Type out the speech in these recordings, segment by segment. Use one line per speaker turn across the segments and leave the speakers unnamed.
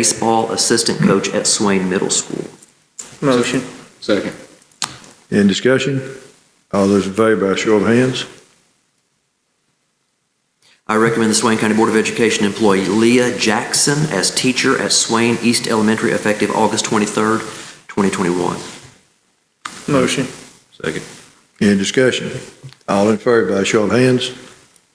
baseball assistant coach at Swain Middle School.
Motion.
Second.
In discussion? All those in favor by show of hands?
I recommend the Swain County Board of Education employee Leah Jackson as teacher at Swain East Elementary effective August 23rd, 2021.
Motion.
Second.
In discussion? All in favor by show of hands?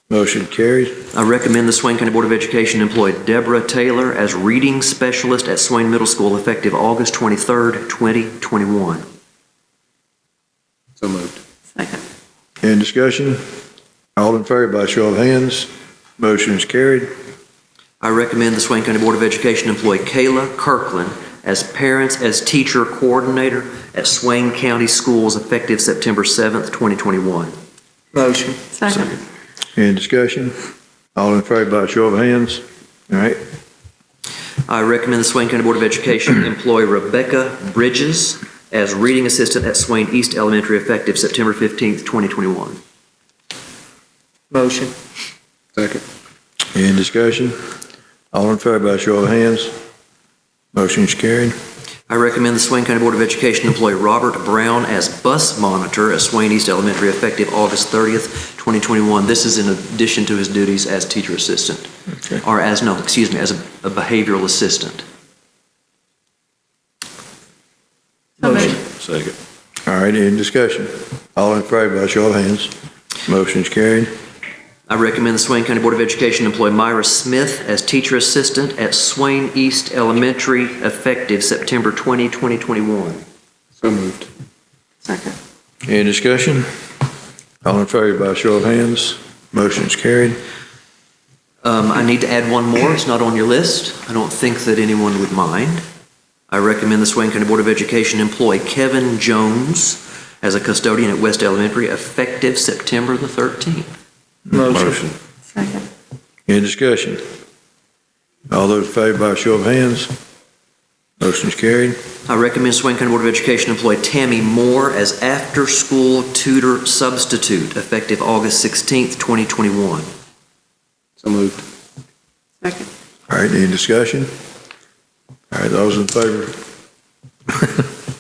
Motion carries.
I recommend the Swain County Board of Education employ Deborah Taylor as reading specialist at Swain Middle School effective August 23rd, 2021.
So moved.
Second.
In discussion? All in favor by show of hands? Motion is carried.
I recommend the Swain County Board of Education employ Kayla Kirkland as parents as teacher coordinator at Swain County Schools effective September 7th, 2021.
Motion.
Second.
In discussion? All in favor by show of hands? All right.
I recommend the Swain County Board of Education employ Rebecca Bridges as reading assistant at Swain East Elementary effective September 15th, 2021.
Motion.
Second.
In discussion? All in favor by show of hands? Motion is carried.
I recommend the Swain County Board of Education employ Robert Brown as bus monitor at Swain East Elementary effective August 30th, 2021. This is in addition to his duties as teacher assistant,
Okay.
or as, no, excuse me, as a a behavioral assistant.
So moved.
Second.
All right, in discussion? All in favor by show of hands? Motion is carried.
I recommend the Swain County Board of Education employ Myra Smith as teacher assistant at Swain East Elementary effective September 20, 2021.
So moved.
Second.
Any discussion? All in favor by show of hands? Motion's carried.
Um, I need to add one more. It's not on your list. I don't think that anyone would mind. I recommend the Swain County Board of Education employ Kevin Jones as a custodian at West Elementary effective September the 13th.
Motion.
Second.
Any discussion? All those in favor by show of hands? Motion's carried.
I recommend Swain County Board of Education employ Tammy Moore as after-school tutor substitute effective August 16th, 2021.
So moved.
Second.
All right, any discussion? All right, those in favor?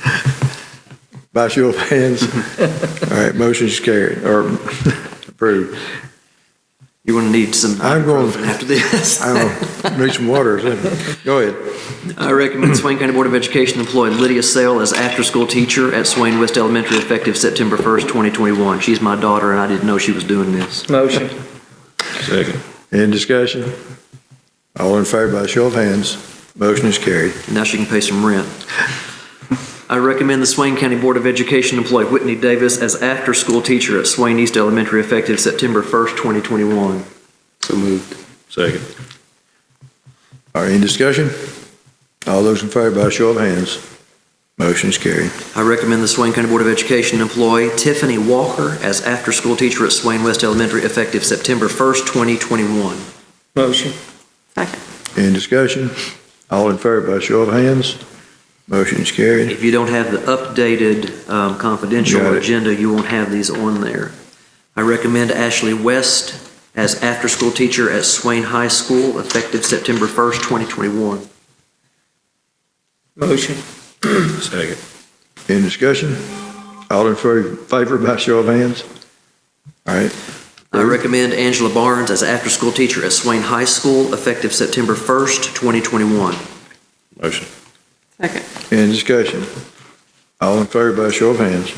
By show of hands? All right, motion's carried, or approved.
You're going to need some
I'm going-
ibuprofen after this.
I don't know, need some water, is it? Go ahead.
I recommend Swain County Board of Education employ Lydia Sale as after-school teacher at Swain West Elementary effective September 1st, 2021. She's my daughter, and I didn't know she was doing this.
Motion.
Second.
Any discussion? All in favor by show of hands? Motion is carried.
Now she can pay some rent. I recommend the Swain County Board of Education employ Whitney Davis as after-school teacher at Swain East Elementary effective September 1st, 2021.
So moved. Second.
All right, any discussion? All those in favor by show of hands? Motion is carried.
I recommend the Swain County Board of Education employ Tiffany Walker as after-school teacher at Swain West Elementary effective September 1st, 2021.
Motion.
Second.
Any discussion? All in favor by show of hands? Motion is carried.
If you don't have the updated um,
Got
confidential
it.
agenda, you won't have these on there. I recommend Ashley West as after-school teacher at Swain High School effective September 1st, 2021.
Motion.
Second.
Any discussion? All in favor favor by show of hands? All right,
I recommend Angela Barnes as after-school teacher at Swain High School effective September 1st, 2021.
Motion.
Second.
any discussion? All in favor by show of hands?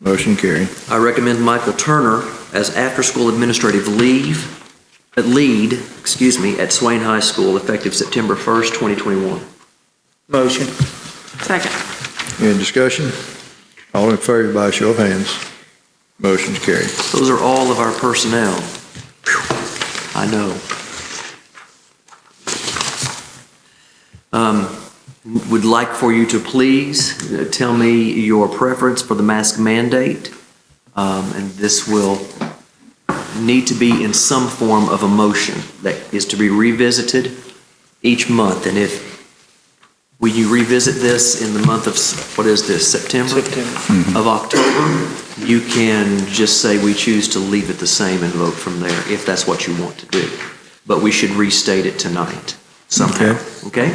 Motion carried.
I recommend Michael Turner as after-school administrative leave, uh, lead, excuse me, at Swain High School effective September 1st, 2021.
Motion.
Second.
Any discussion? All in favor by show of hands? Motion is carried.
Those are all of our personnel. Phew, I know. Um, Would like for you to please uh, tell me your preference for the mask mandate, Um, and this will need to be in some form of a motion that is to be revisited each month, and if, will you revisit this in the month of, s- what is this,
September.
of October, you can just say we choose to leave it the same and vote from there, if that's what you want to do. But we should restate it tonight somehow, okay?